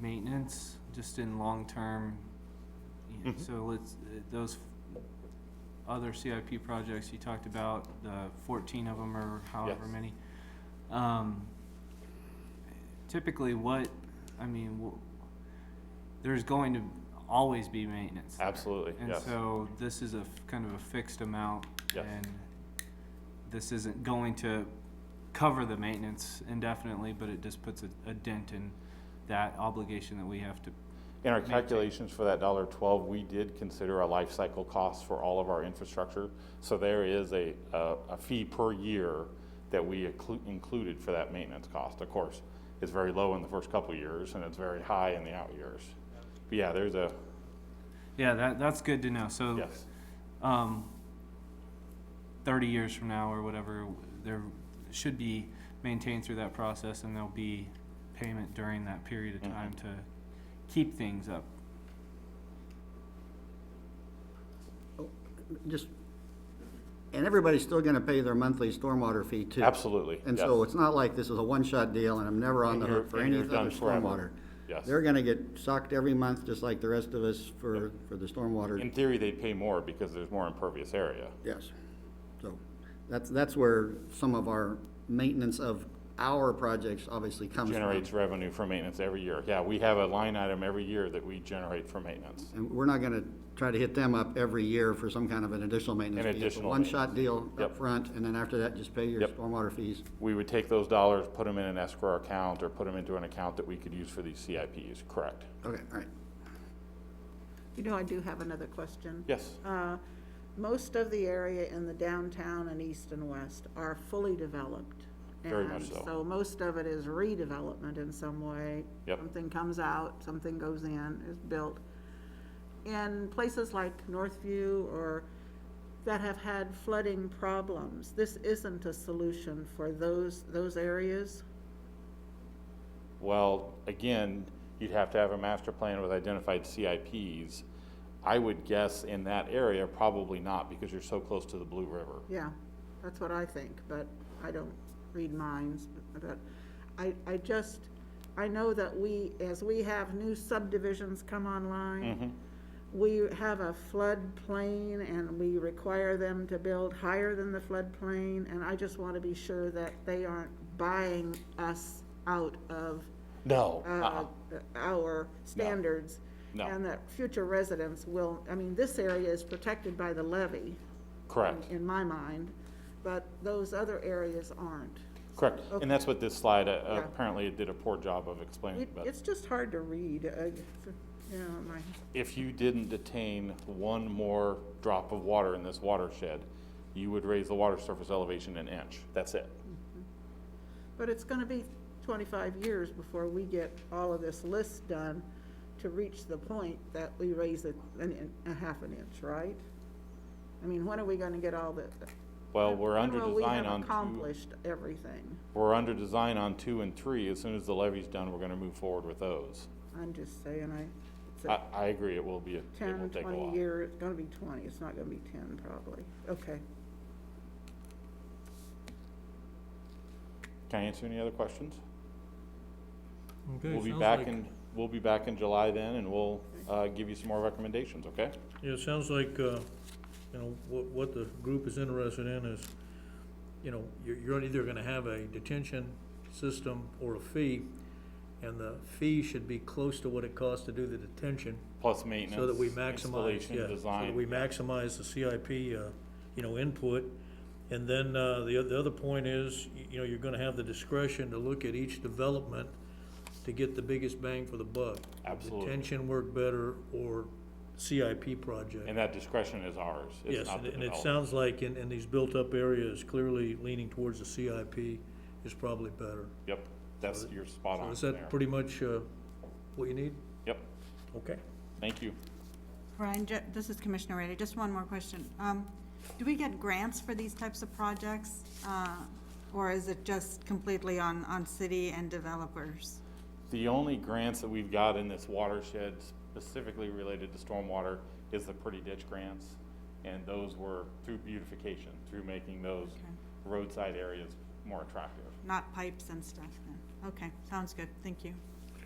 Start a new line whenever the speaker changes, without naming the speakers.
maintenance, just in long-term. you know,
Mhm.
So let's, uh, those other CIP projects you talked about, the fourteen of them or however
Yes.
many. Um, typically what, I mean, wh- there's going to always be maintenance. there.
Absolutely, yes.
And so this is a f- kind of a fixed amount.
Yes.
And this isn't going to cover the maintenance indefinitely, but it just puts a, a dent in that obligation that we have to.
In our
maintain.
calculations for that dollar twelve, we did consider our life cycle costs for all of our infrastructure. So there is a, a, a fee per year that we inclu- included for that maintenance cost. Of course, it's very low in the first couple of years and it's very high in the out years. But yeah, there's a,
Yeah, that, that's good to know. So.
yes,
um, 30 years from now or whatever, there should be maintained through that process and there'll be payment during that period of
Mhm.
time to keep things up.
Just, and everybody's still gonna pay their monthly stormwater fee too.
absolutely.
And
yes.
so it's not like this is a one-shot deal and I'm never on
And
the
you're-
hook for
and
any
you're
of
done
the
forever.
stormwater.
Yes.
They're gonna get sucked every month, just like the rest of us for, for the
In
stormwater,
theory, they pay more because there's more impervious area.
yes. So, that's, that's where some of our maintenance of our projects obviously comes from.
Generates revenue for maintenance every year. Yeah, we have a line item every year that we generate for maintenance.
And we're not gonna try to hit them up every year for some kind of an additional maintenance.
An
fee. It's a
additional
One-shot deal
Yep.
up front, and then after that, just pay your
Yep.
stormwater fees.
we would take those dollars, put them in an escrow account, or put them into an account that we could use for these CIPs, correct?
Okay, all right.
You know, I do have another question.
Yes,
Uh, Most of the area in the downtown and east and west are fully developed.
Very much
and
so.
So most of it is redevelopment in some way.
Yep.
Something comes out, something goes in, is built. In places like Northview or that have had flooding problems, this isn't a solution for those, those areas?
well, again, you'd have to have a master plan with identified CIPs. I would guess in that area, probably not, because you're so close to the Blue River.
Yeah, that's what I think, but I don't read minds, but I, I just, I know that we, as we have new subdivisions come online, we have a floodplain and we require them to build higher than the floodplain, and I just want to be sure that they aren't buying us out of,
No.
uh, our standards.
Uh-uh. No.
And that future residents will, I mean, this area is protected by the levee
Correct,
in my mind, but those other areas aren't.
correct.
Okay.
And that's what this slide, uh,
Yeah.
apparently it did a poor job of explaining,
It-
but.
It's just hard to read, uh, f- you know, my,
if you didn't detain one more drop of water in this watershed, you would raise the water surface elevation an inch. That's it.
but it's gonna be twenty-five years before we get all of this list done to reach the point that we raise it an, in- a half an inch, right? I mean, when are we gonna get all the?
Well, we're
when
under
will we
design
have
on two,
Accomplished everything,
we're under design on two and three. As soon as the levee's done, we're gonna move forward with those.
I'm just saying, I, it's
I,
a
I agree, it will be, a- it will
ten,
take a
twenty
while.
year, it's gonna be twenty, it's not gonna be ten probably, okay.
Can I answer any other questions?
Okay,
We'll be
sounds
back
like-
in, we'll be back in July then and we'll, uh, give you some more recommendations, okay?
Yeah, it sounds like, uh, you know, what, what the group is interested in is, you know, you're, you're either gonna have a detention system or a fee, and the fee should be close to what it costs to do the detention,
Plus maintenance.
so that we maximize,
installation,
yeah, so
Design.
that we maximize the CIP, uh, you know, input. And then, uh, the, oth- the other point is, y- you know, you're gonna have the discretion to look at each development to get the biggest bang for the buck.
Absolutely.
Detention work better or CIP project.
And that discretion is ours. It's
Yes,
not
and
the
and it
developer.
sounds like in, in these built-up areas, clearly leaning towards the CIP is probably better.
Yep, that's, you're spot
So
on
Is
there.
that pretty much, uh, what you need?
Yep,
Okay.
thank you.
Brian, ju- this is Commissioner Rady, just one more question. Um, Do we get grants for these types of projects? uh, Or is it just completely on, on city and developers?
The only grants that we've got in this watershed specifically related to stormwater is the Pretty Ditch Grants. And those were through beautification, through making those roadside areas more attractive.
Not pipes and stuff then? Okay, sounds good, thank you.